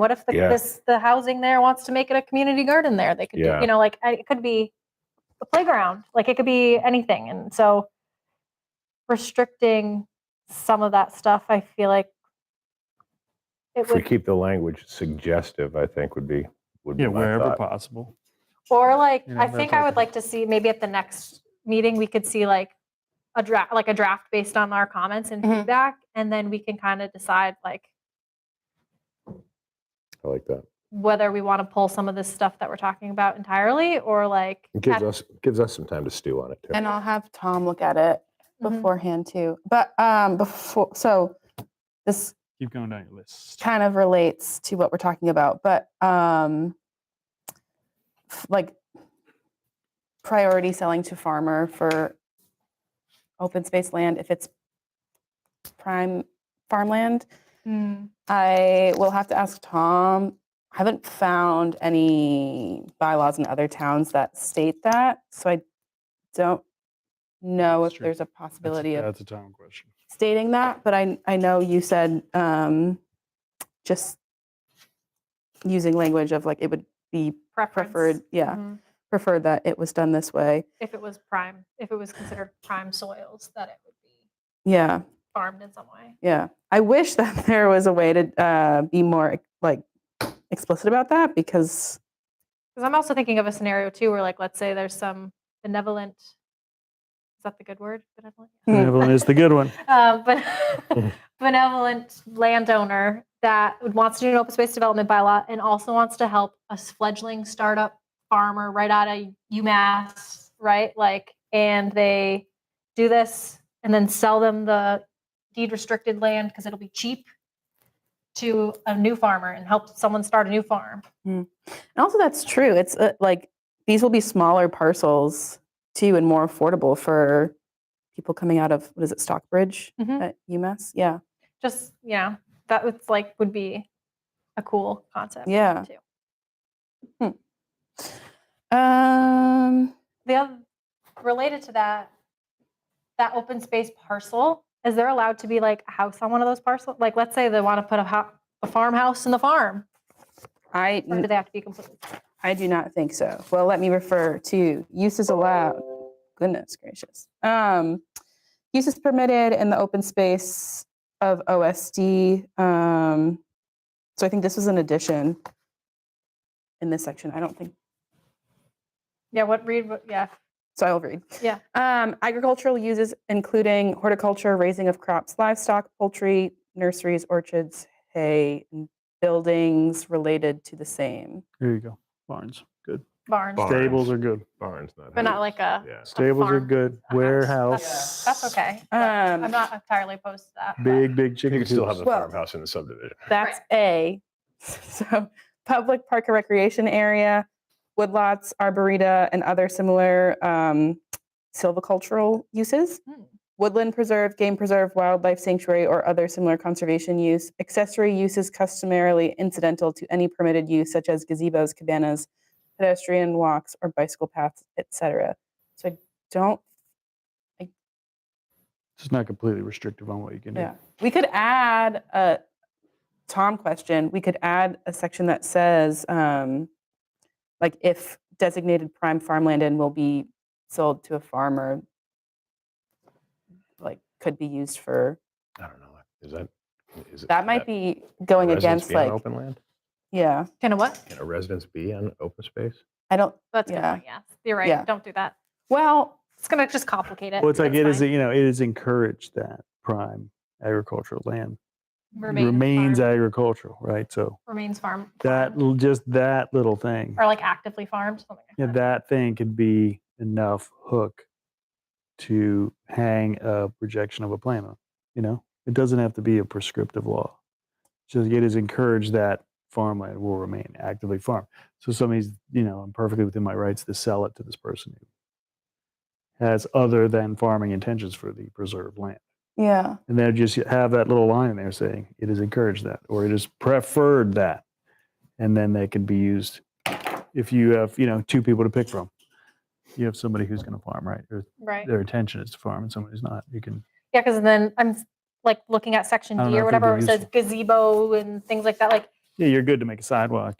What if the, Yeah. this the housing there wants to make it a community garden there? They could, do- Yeah. you know, like I- it could be a playground, like it could be anything. And so restricting some of that stuff, I feel like it If we would, keep the language suggestive, I think would be, would be Yeah, my wherever thought. possible. or like you know, I that think type I of would thing. like to see maybe at the next meeting we could see like a draft, like a draft based on our comments and Mhm. feedback, and then we can kind of decide like I like that. whether we want to pull some of this stuff that we're talking about entirely or like It gives at- us, gives us some time to stew on it too. And I'll have Tom look at it Mhm. beforehand too. But um before so this Keep going down your list. kind of relates to what we're talking about, but um f- like priority selling to farmer for open space land if it's prime farmland. I will have to ask Tom. I haven't found any bylaws in other towns that state that, so I don't know That's if true. there's a That's a- possibility of That's a town question. stating that, but I, I know you said um, just using language of like it would be preference. preferred, yeah, Mhm. preferred that it was done this way. If it was prime, if it was considered prime soils, that it would be Yeah, farmed in some way. yeah. I wish that there was a way to uh, be more like explicit about that because Because I'm also thinking of a scenario too where like let's say there's some benevolent is that the good word? Benevolent? Mm. Benevolent is the good one. um, but benevolent landowner that would- wants to do an open space development bylaw and also wants to help a s- fledgling startup farmer right out of UMass, right? Like, and they do this and then sell them the deed restricted land because it'll be cheap to a new farmer and help someone start a new farm. And also, that's true. It's uh, like these will be smaller parcels too, and more affordable for people coming out of what is it, Stockbridge Mhm. at UMass? Yeah, Just you know, that would like would be a cool concept. yeah. Hmm. too. Um, the other related to that that open space parcel is there allowed to be like a house on one of those parcels like let's say they want to put a, ho- a farmhouse in the farm I or do they have to be completely I do not think so. Well, let me refer to uses allowed. Goodness gracious. Um, uses permitted in the open space of OSD. Um, so I think this was an addition in this section. I don't think yeah what read what, yeah So I'll read. Yeah. Um, agricultural uses including horticulture, raising of crops, livestock, poultry, nurseries, orchards, hay, and buildings related to the same. Here you go. Barns, good. barns Barn. Stables are good. Barns, not. but not houses. like a, Yeah. Stables are farm, good. a Warehouse. That's, that's okay but Um, i'm not entirely opposed to that but- Big, big You chicken could still have a coops. Well- farmhouse in the subdivision. That's A. So public park and recreation area, woodlots, arboreta, and other similar um, silvicultural uses. Hmm. Woodland preserve, game preserve, wildlife sanctuary, or other similar conservation use. Accessory uses customarily incidental to any permitted use, such as gazebos, cabanas, pedestrian walks, or bicycle paths, etc. So I don't. It's not completely restrictive on what you can do. Yeah. We could add a Tom question. We could add a section that says, um, like, if designated prime farmland and will be sold to a farmer, like, could be used for. I don't know. Is that? Is it- That might can be going residents against, be on like, Open land? yeah. kind of what Can a residence be on open space? I don't. that's a good Yeah. point, yeah you're right Yeah. don't do that Well, it's gonna just complicate it Well, it's like it That's is, fine. you know, it is encouraged that prime agricultural land Remain remains farm, agricultural, right? So remains farm that, farmed, l- just that little thing, or like actively farmed something like yeah, that. that thing could be enough hook to hang a rejection of a plan on, you know? It doesn't have to be a prescriptive law. So it is encouraged that farmland will remain actively farmed. So somebody's, you know, I'm perfectly within my rights to sell it to this person who has other than farming intentions for the preserved land. yeah. And then just have that little line in there saying it is encouraged that or it is preferred that. And then they can be used if you have, you know, two people to pick from. You have somebody who's going to farm, right? Or right their intention is to farm and somebody's not. You can, Yeah, because then I'm s- like looking at section I don't D know or if it'd be whatever, it says gazebo and things like that. Like yeah, you're good to make a sidewalk.